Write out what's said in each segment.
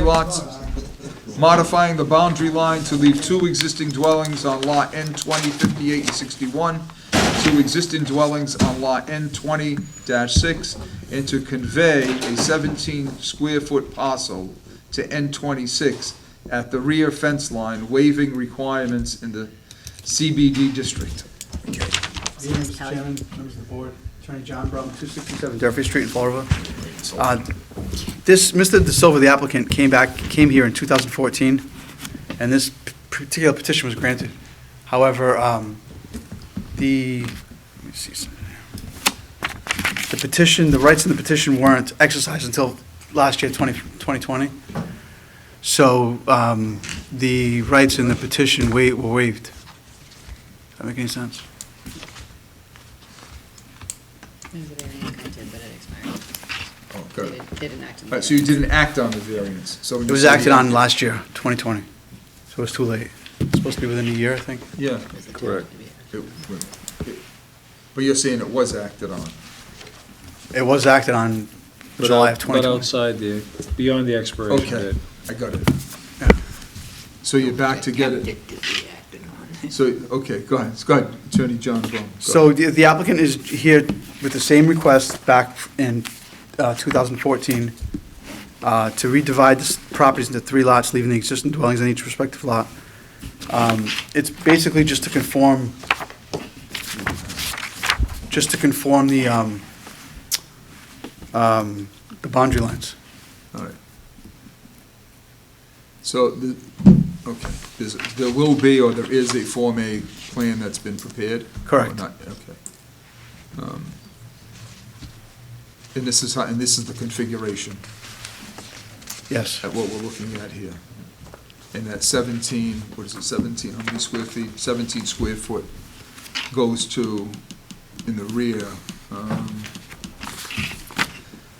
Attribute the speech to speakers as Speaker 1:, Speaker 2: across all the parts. Speaker 1: lots, modifying the boundary line to leave two existing dwellings on lot N twenty fifty-eight and sixty-one, two existing dwellings on lot N twenty six, and to convey a seventeen square foot parcel to N twenty-six at the rear fence line, waiving requirements in the CBD district.
Speaker 2: Good evening, Mr. Chairman, members of the board, Attorney John Brum, 267 Durfee Street in Fall River. Uh, This, Mr. De Silva, the applicant, came back, came here in 2014, and this p- particular petition was granted. However, um, the, let me see something here. the petition, the rights in the petition weren't exercised until last year, 20 2020. So um, the rights in the petition wa- were waived. Does that make any sense?
Speaker 3: There's a variant I did, but it expired.
Speaker 1: Oh,
Speaker 3: They did- They didn't act on
Speaker 1: All
Speaker 3: it.
Speaker 1: right, Uh, so you didn't act on the variance, so.
Speaker 2: It was acted on last year, 2020, so it's too late. It's supposed to be within a year, I think.
Speaker 1: Yeah.
Speaker 3: It was a
Speaker 1: Correct.
Speaker 3: tentative, yeah.
Speaker 1: It- it- But you're saying it was acted on.
Speaker 2: It was acted on
Speaker 4: But
Speaker 2: July of
Speaker 4: out- But
Speaker 2: 2020.
Speaker 4: outside the, beyond the expiration
Speaker 1: Okay.
Speaker 4: date.
Speaker 1: I got it.
Speaker 2: Yeah.
Speaker 1: So you're back to get it,
Speaker 3: Attempted to be acted on.
Speaker 1: so, okay, go ahead, go ahead, Attorney John Brown. go
Speaker 2: So
Speaker 1: ahead.
Speaker 2: the the applicant is here with the same request back in uh, 2014 uh, to redivide the properties into three lots, leaving the existing dwellings on each respective lot. Um, It's basically just to conform, just to conform the, um, um, the boundary lines.
Speaker 1: All right. So, the, okay, there's, there will be, or there is a Form A plan that's been prepared?
Speaker 2: Correct.
Speaker 1: Or not, Okay. Um, And this is, how- and this is the configuration?
Speaker 2: Yes.
Speaker 1: at what we're looking at here. And that 17, what is it, 17, how many square feet? 17 square foot goes to, in the rear. um,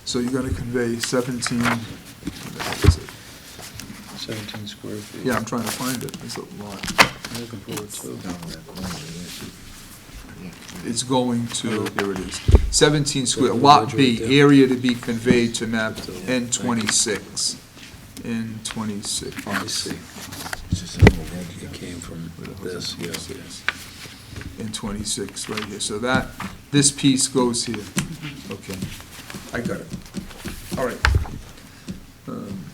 Speaker 1: So you're going to convey 17, what is it?
Speaker 4: 17 square feet.
Speaker 1: yeah, I'm trying to find it, it's a lot.
Speaker 4: I'm looking for it too.
Speaker 1: It's going to, here it is, 17 square, Lot B, area to be conveyed to map N26. N26.
Speaker 4: I see. It's just how It came from this, yeah.
Speaker 1: And 26, right here, so that, this piece goes here. Okay, I got it. All right. Um,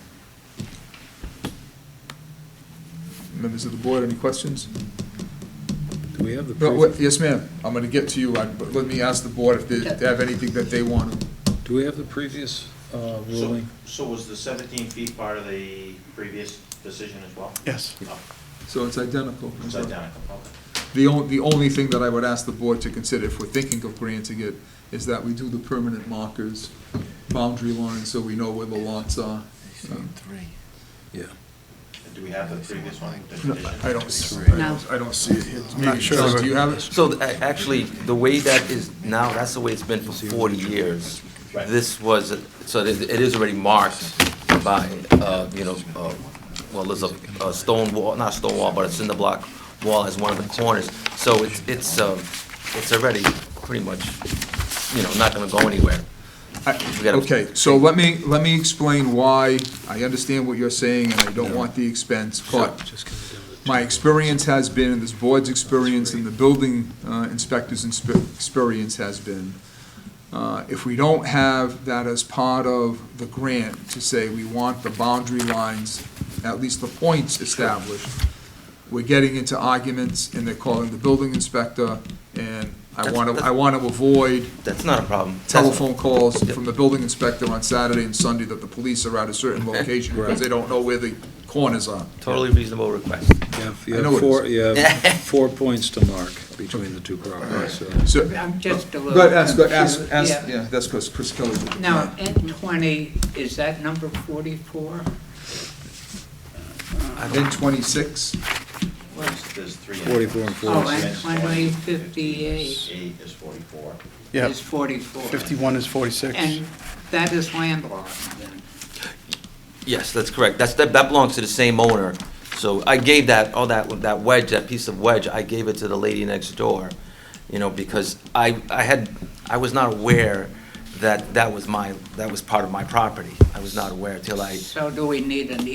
Speaker 1: Members of the board, any questions?
Speaker 4: Do we have the,
Speaker 1: No, wait,
Speaker 4: pre-
Speaker 1: Yes, ma'am, I'm going to get to you, I- but let me ask the board if they if they have anything that they want. to-
Speaker 4: do we have the previous uh,
Speaker 5: So-
Speaker 4: ruling?
Speaker 5: So was the 17 feet part of the previous decision as well?
Speaker 2: Yes.
Speaker 5: Oh,
Speaker 1: So it's identical.
Speaker 5: It's identical, okay.
Speaker 1: The only, the only thing that I would ask the board to consider if we're thinking of granting it is that we do the permanent markers, boundary lines, so we know where the lots are. Um,
Speaker 4: Yeah.
Speaker 5: And Do we have the previous one, the
Speaker 1: No,
Speaker 5: petition?
Speaker 1: I don't, see- I
Speaker 3: No.
Speaker 1: don't- I don't see it here.
Speaker 2: not sure.
Speaker 1: John, Do you have it?
Speaker 6: So a- actually, the way that is now, that's the way it's been for 40 years.
Speaker 5: Right.
Speaker 6: This was, so it it is already marked by, uh, you know, uh, well, there's a a stone wall, not a stone wall, but a cinder block wall as one of the corners. So it's, it's um, it's already pretty much, you know, not going to go anywhere.
Speaker 1: I-
Speaker 6: We gotta-
Speaker 1: Okay, so let me, let me explain why, I understand what you're saying, and I don't want the expense, but my experience has been, and this board's experience, and the building uh, inspector's inspe- experience has been, uh, if we don't have that as part of the grant, to say we want the boundary lines, at least the points established, we're getting into arguments, and they're calling the building inspector, and I
Speaker 6: That's-
Speaker 1: want to, I
Speaker 6: that's-
Speaker 1: want to avoid
Speaker 6: That's not a problem. That's-
Speaker 1: telephone calls from the building inspector on Saturday and Sunday that the police are at a certain location because they don't know where the corners are.
Speaker 6: Totally reasonable request.
Speaker 4: You have-
Speaker 1: I know
Speaker 4: you
Speaker 1: what
Speaker 4: have
Speaker 1: it
Speaker 4: four, you have four points to mark between the two properties, so.
Speaker 1: So,
Speaker 7: I'm just a little.
Speaker 1: but ask, ask, ask,
Speaker 7: confused.
Speaker 1: yeah, that's because Chris Kelly. did it.
Speaker 7: Now, N twenty, is that number forty-four?
Speaker 1: Then twenty-six,
Speaker 5: There's- There's three.
Speaker 4: 44 and
Speaker 7: Oh,
Speaker 4: 46.
Speaker 7: and twenty fifty-eight
Speaker 5: Eight is 44.
Speaker 2: Yeah,
Speaker 7: is forty-four.
Speaker 2: 51 is 46.
Speaker 7: And that is landlocked then.
Speaker 6: Yes, that's correct. That's, that that belongs to the same owner. So I gave that, all that, that wedge, that piece of wedge, I gave it to the lady next door, you know, because I, I had, I was not aware that that was my, that was part of my property. I was not aware till I
Speaker 7: So do we need an